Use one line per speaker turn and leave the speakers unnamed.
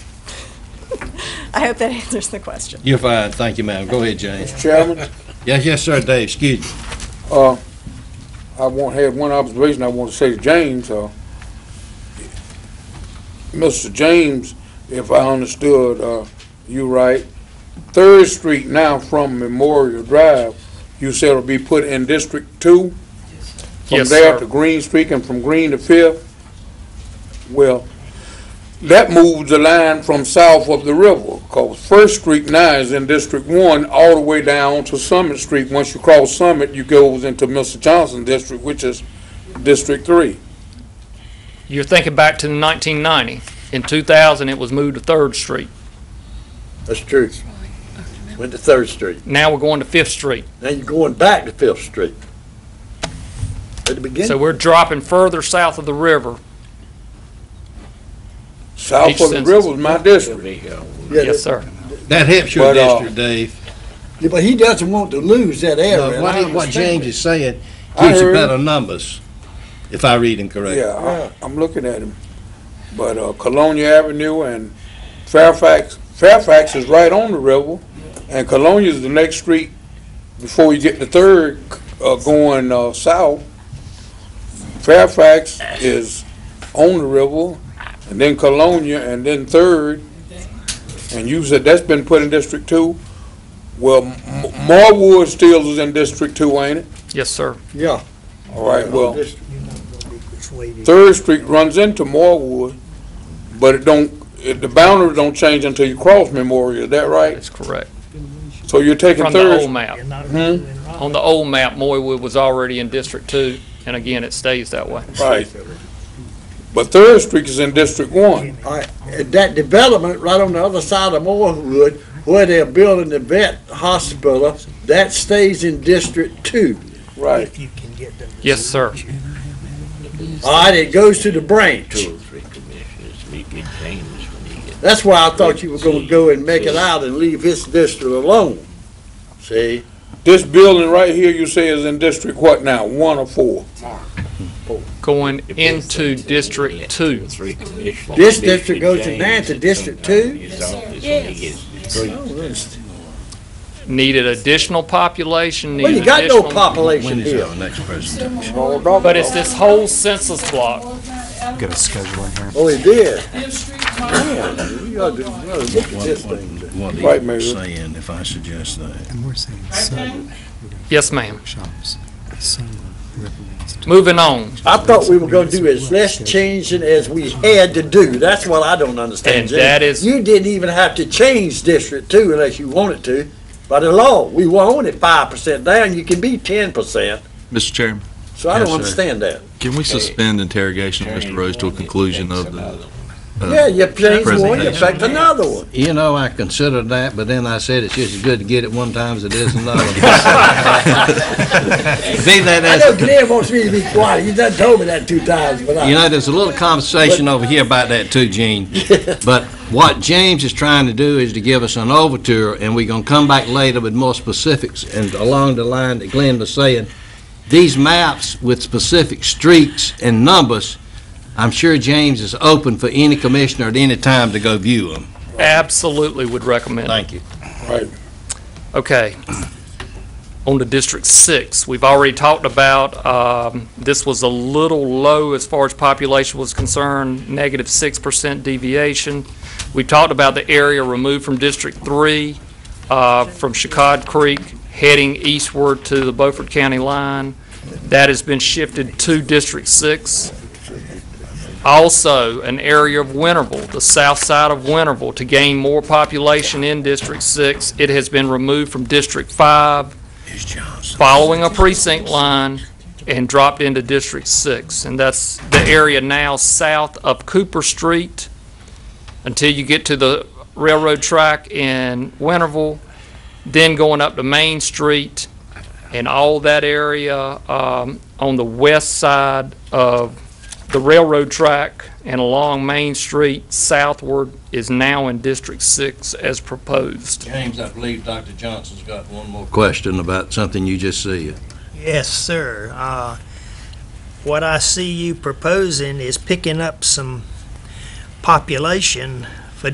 I hope that answers the question.
You're fine, thank you, ma'am. Go ahead, James.
Mr. Chairman,
Yes, yes, sir, Dave, excuse me.
uh, I want, had one observation I want to say to James, uh, Mr. James, if I understood, uh, you right, Third Street now from Memorial Drive, you said will be put in District Two? From
Yes,
there
sir.
to Green Street and from Green to Fifth? Well, that moves the line from south of the river, cause First Street now is in District One, all the way down to Summit Street. Once you cross Summit, you goes into Mr. Johnson District, which is District Three.
You're thinking back to 1990. In 2000, it was moved to Third Street.
That's true. Went to Third Street.
Now we're going to Fifth Street.
Now you're going back to Fifth Street. At the
So
beginning,
we're dropping further south of the river.
South
Each
of the
census.
river is my district.
Yeah,
Yes, sir.
That helps your
But, uh,
district, Dave.
Yeah, but he doesn't want to lose that area.
No,
and I
What what
understand
James is saying
I
gives you
heard-
better numbers, if I read him correctly.
Yeah, I- I'm looking at him. But uh, Colonia Avenue and Fairfax, Fairfax is right on the river, and Colonia is the next street before you get to Third, uh, going uh, south. Fairfax is on the river, and then Colonia, and then Third. And you said that's been put in District Two. Well, M- M- Marwood still is in District Two, ain't it?
Yes, sir.
it. Yeah.
All right, well.
Just-
Third Street runs into Morewood, but it don't, it- the boundaries don't change until you cross Memorial, is that right?
That's correct.
So you're taking
From the old
Third,
map.
Hmm?
On the old map, Moywood was already in District Two, and again, it stays that way.
right. But Third Street is in District One,
All right, and that development right on the other side of Morewood, where they're building the vet hospital, that stays in District Two.
right.
you can get them.
Yes, sir.
All right, it goes to the branch.
Two or three commissioners meet with James when he gets.
That's why I thought you were gonna go and make it out and leave his district alone. See?
This building right here, you say is in District what now, one or four?
Going
if it's
into
two,
District
let
Two.
Three commissioners.
This district goes to
James
Nance,
sits
District
sometime
Two?
in his office when he gets three.
Needed additional population,
Well, you
needed
got no
additional.
When
population
is
here.
our next presentation?
But it's this whole census block.
Get a schedule in here.
Oh, he did. Man, we ought to, we ought to look at this thing.
What he
Right, Mayor.
was saying, if I suggest that.
And we're saying seven
Yes, ma'am.
shops, seven riverbands.
Moving on.
I thought we were gonna do as less changing as we had to do. That's what I don't understand.
And
Jim.
that is-
You didn't even have to change district two unless you wanted to. By the law, we were only five percent down. You can be ten percent.
Mr. Chairman,
So I don't
Yes, sir.
understand that.
can we suspend interrogation of Mr. Rhodes to a conclusion of the,
Yeah, you change one, you
Presentation.
affect another one.
You know, I considered that, but then I said it's just as good to get it one time as it is another. Be that
I
as
know Glenn wants me to be quiet. He done told me that two times, but
You
I,
know, there's a little conversation over here about that too, Gene. But what James is trying to do is to give us an overture, and we're gonna come back later with more specifics, and along the line that Glenn was saying, these maps with specific streets and numbers, I'm sure James is open for any commissioner at any time to go view them.
Absolutely would recommend. it.
you.
Right.
Okay. On to District Six, we've already talked about, um, this was a little low as far as population was concerned, negative six percent deviation. We talked about the area removed from District Three, uh, from Chicod Creek, heading eastward to the Beaufort County line. That has been shifted to District Six. Also, an area of Winterville, the south side of Winterville, to gain more population in District Six. It has been removed from District Five, following a precinct line, and dropped into District Six. And that's the area now south of Cooper Street until you get to the railroad track in Winterville, then going up to Main Street and all that area um, on the west side of the railroad track and along Main Street southward is now in District Six as proposed.
James, I believe Dr. Johnson's got one more. Question about something you just said.
Yes, sir. Uh, What I see you proposing is picking up some population